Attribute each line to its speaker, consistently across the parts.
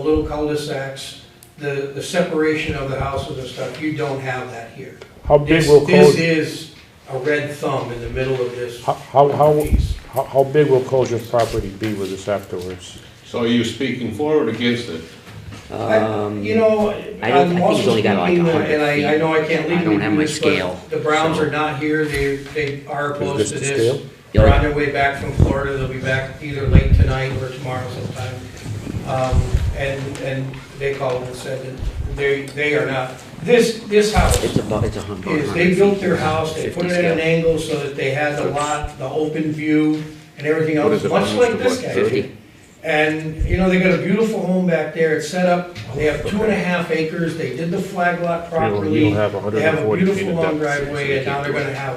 Speaker 1: little cul-de-sacs, the, the separation of the houses and stuff, you don't have that here.
Speaker 2: How big will
Speaker 1: This
Speaker 2: close,
Speaker 1: is a red thumb in the middle of this
Speaker 2: how, how, how,
Speaker 1: piece.
Speaker 2: how- how big will Colger's property be with this afterwards?
Speaker 3: So are you speaking for or against it?
Speaker 1: I-
Speaker 4: Um,
Speaker 1: You know,
Speaker 4: I don't- I think
Speaker 1: I'm
Speaker 4: he's
Speaker 1: also
Speaker 4: only
Speaker 1: speaking,
Speaker 4: got like
Speaker 1: and
Speaker 4: 100
Speaker 1: I, I know I
Speaker 4: feet.
Speaker 1: can't
Speaker 4: I
Speaker 1: legally
Speaker 4: don't have
Speaker 1: do
Speaker 4: my
Speaker 1: this,
Speaker 4: scale,
Speaker 1: but the Browns
Speaker 4: so-
Speaker 1: are not here, they, they are close
Speaker 2: this
Speaker 1: to
Speaker 2: the scale?
Speaker 1: this.
Speaker 4: Yeah,
Speaker 1: They're
Speaker 4: like-
Speaker 1: on their way back from Florida, they'll be back either late tonight or tomorrow sometime. Um, and, and they called and said that they, they are not, this, this
Speaker 4: it's
Speaker 1: house
Speaker 4: about, it's a hundred.
Speaker 1: is, they built their house, they put it at an angle so that they had the lot, the open view and everything
Speaker 3: What
Speaker 1: else,
Speaker 3: is it,
Speaker 1: much
Speaker 3: minus
Speaker 1: like
Speaker 3: the
Speaker 1: this
Speaker 3: what,
Speaker 1: guy. did.
Speaker 4: Fifty,
Speaker 1: And, you know, they got a beautiful home back there, it's set up, they have two and a half acres, they did the flag lot
Speaker 2: You'll-
Speaker 1: properly.
Speaker 2: You'll have
Speaker 1: They have a
Speaker 2: 140 feet
Speaker 1: beautiful
Speaker 2: of
Speaker 1: long
Speaker 2: depth.
Speaker 1: driveway, and now they're gonna have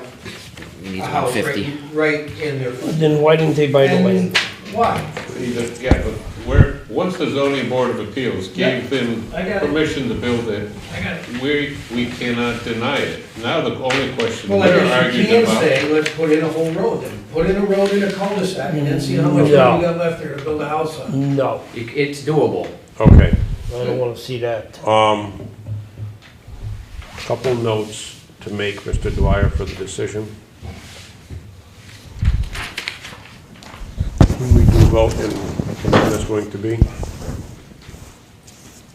Speaker 4: you need
Speaker 1: a
Speaker 4: about
Speaker 1: house right,
Speaker 4: fifty.
Speaker 1: right in their front.
Speaker 5: Then why didn't they buy the
Speaker 1: And
Speaker 5: land?
Speaker 1: why?
Speaker 3: You just- Yeah, but where, once the zoning board of appeals gave them
Speaker 1: I got it.
Speaker 3: permission to build it,
Speaker 1: I got it.
Speaker 3: we, we cannot deny it. Now the only question
Speaker 1: Well,
Speaker 3: they're
Speaker 1: I guess you
Speaker 3: arguing
Speaker 1: can
Speaker 3: about.
Speaker 1: say, let's put in a whole road then, put in a road and a cul-de-sac, and then see how much money you
Speaker 5: No.
Speaker 1: got left there to build a house on.
Speaker 5: No,
Speaker 4: It- It's doable.
Speaker 2: Okay,
Speaker 5: I don't wanna see that.
Speaker 2: um, couple notes to make, Mr. Dwyer, for the decision. Who we do vote and what that's going to be?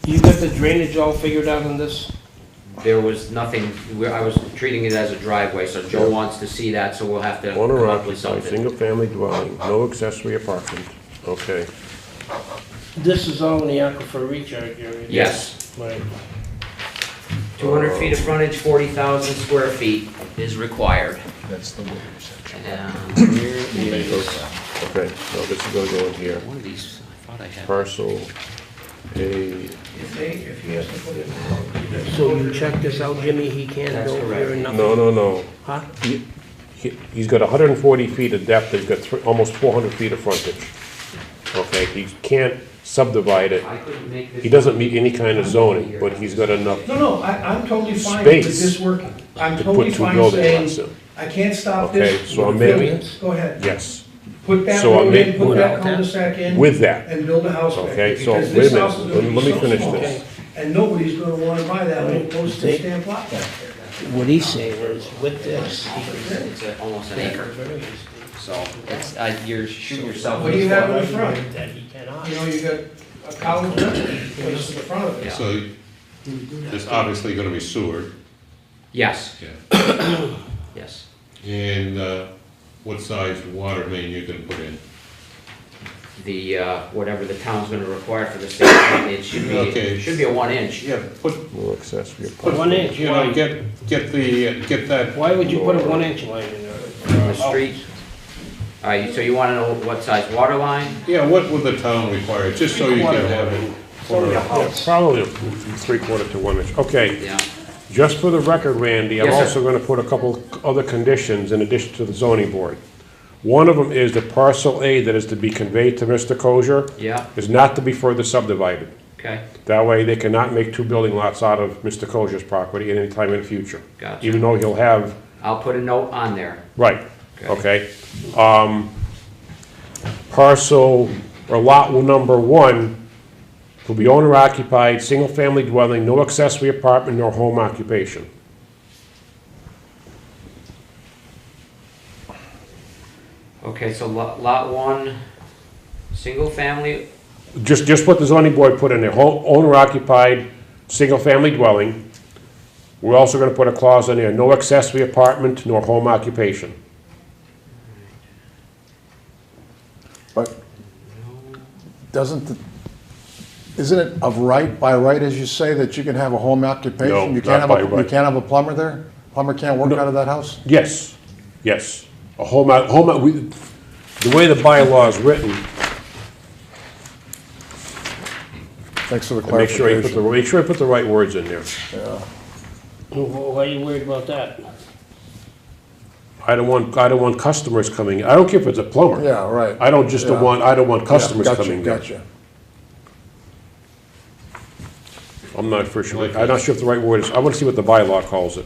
Speaker 5: You got the drainage all figured out on this?
Speaker 4: There was nothing, we- I was treating it as a driveway, so Joe wants to see that, so we'll have to
Speaker 2: On or
Speaker 4: come up
Speaker 2: off
Speaker 4: with
Speaker 2: a
Speaker 4: something.
Speaker 2: single-family dwelling, no accessory apartment, okay.
Speaker 5: This is all in the aquifer recharge area?
Speaker 4: Yes,
Speaker 5: Right.
Speaker 4: two hundred feet of frontage, forty thousand square feet is required.
Speaker 6: That's the waiver
Speaker 4: And here is,
Speaker 2: Okay, so this is gonna go in here,
Speaker 4: one of these, I thought I had.
Speaker 2: parcel A,
Speaker 1: If they, if he has to put in a road.
Speaker 5: So you check this out, Jimmy, he can't
Speaker 4: That's
Speaker 5: go
Speaker 4: correct.
Speaker 5: here and nothing?
Speaker 2: no, no, no.
Speaker 5: Huh?
Speaker 2: He- he- He's got 140 feet of depth, he's got thr- almost 400 feet of frontage. Okay, he can't subdivide it.
Speaker 4: I couldn't make this.
Speaker 2: He doesn't meet any kind of zoning, but he's got enough
Speaker 1: No, no, I, I'm totally fine with
Speaker 2: Space
Speaker 1: this working, I'm
Speaker 2: to
Speaker 1: totally
Speaker 2: put two
Speaker 1: fine
Speaker 2: building lots
Speaker 1: saying,
Speaker 2: in.
Speaker 1: I can't stop
Speaker 2: Okay,
Speaker 1: this.
Speaker 2: so I'm making,
Speaker 5: variance?
Speaker 1: Go ahead,
Speaker 2: yes,
Speaker 1: put that
Speaker 2: So I'm
Speaker 1: road in,
Speaker 2: making-
Speaker 1: put that
Speaker 4: Without that?
Speaker 1: cul-de-sac in.
Speaker 2: with that.
Speaker 1: and build a house back there,
Speaker 2: Okay, so
Speaker 1: because
Speaker 2: wait
Speaker 1: this
Speaker 2: a minute,
Speaker 1: house is gonna
Speaker 2: let- let
Speaker 1: be
Speaker 2: me
Speaker 1: so
Speaker 2: finish
Speaker 1: small,
Speaker 2: this.
Speaker 1: and nobody's gonna wanna buy that little postage
Speaker 5: They-
Speaker 1: stamp lot back there.
Speaker 5: What he's saying is with this, he could get
Speaker 4: It's a- almost an
Speaker 5: a
Speaker 4: acre,
Speaker 5: variance
Speaker 4: so it's, uh, you're shooting yourself.
Speaker 1: What do
Speaker 4: in
Speaker 1: you
Speaker 4: the
Speaker 1: have
Speaker 4: foot.
Speaker 1: in the front?
Speaker 5: that he cannot.
Speaker 1: You know, you got a college this is the front of it.
Speaker 4: Yeah.
Speaker 3: So there's obviously gonna be sewer.
Speaker 4: Yes,
Speaker 3: Yeah.
Speaker 4: yes.
Speaker 3: And uh, what size water main you gonna put in?
Speaker 4: The, uh, whatever the town's gonna require for the state, it should be,
Speaker 3: Okay.
Speaker 4: it should be a one inch.
Speaker 3: Yeah, put,
Speaker 2: no accessory
Speaker 5: Put
Speaker 2: apartment.
Speaker 5: one inch
Speaker 3: you know,
Speaker 5: line.
Speaker 3: get, get the, get that
Speaker 5: Why would you put a one inch line in
Speaker 4: The
Speaker 5: there?
Speaker 4: street. All right, so you wanna know what size water line?
Speaker 3: Yeah, what would the town require, just so you can have it?
Speaker 2: Yeah, Probably three-quarter to one inch, okay.
Speaker 4: Yeah,
Speaker 2: Just for the record, Randy, I'm
Speaker 4: Yes, sir.
Speaker 2: also gonna put a couple other conditions in addition to the zoning board. One of them is the parcel A that is to be conveyed to Mr. Kozier
Speaker 4: yeah,
Speaker 2: is not to be further subdivided.
Speaker 4: okay,
Speaker 2: That way, they cannot make two building lots out of Mr. Kozier's property at any time in the future.
Speaker 4: Gotcha.
Speaker 2: Even though he'll have,
Speaker 4: I'll put a note on there.
Speaker 2: right, okay? Um, Parcel, or lot number one, will be owner occupied, single-family dwelling, no accessory apartment nor home occupation.
Speaker 4: Okay, so lot, lot one, single family,
Speaker 2: Just, just what the zoning board put in there, home, owner occupied, single-family dwelling. We're also gonna put a clause in there, no accessory apartment nor home occupation.
Speaker 6: But doesn't, the- isn't it of right, by right, as you say, that you can have a home occupation?
Speaker 2: No,
Speaker 6: You can't
Speaker 2: not
Speaker 6: have
Speaker 2: by
Speaker 6: a- You
Speaker 2: right.
Speaker 6: can't have a plumber there? Plumber can't work out of that house?
Speaker 2: Yes, yes. A home, out- home, out- we, the way the bylaw is written,
Speaker 6: Thanks for the
Speaker 2: make sure I put the,
Speaker 6: clarification.
Speaker 2: make sure I put the right words in there.
Speaker 5: Wh- Why are you worried about that?
Speaker 2: I don't want, I don't want customers coming, I don't care if it's a plumber.
Speaker 6: Yeah, right.
Speaker 2: I don't just
Speaker 6: Yeah.
Speaker 2: don't want, I don't want customers
Speaker 6: Yeah, gotcha,
Speaker 2: coming there.
Speaker 6: Gotcha.
Speaker 2: I'm not for sure, I'm not sure if the right word is, I wanna see what the bylaw calls it.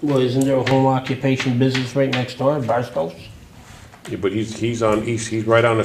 Speaker 5: Well, isn't there a home occupation business right next door, Barstow's?
Speaker 2: Yeah, But he's, he's on, he's, he's right on the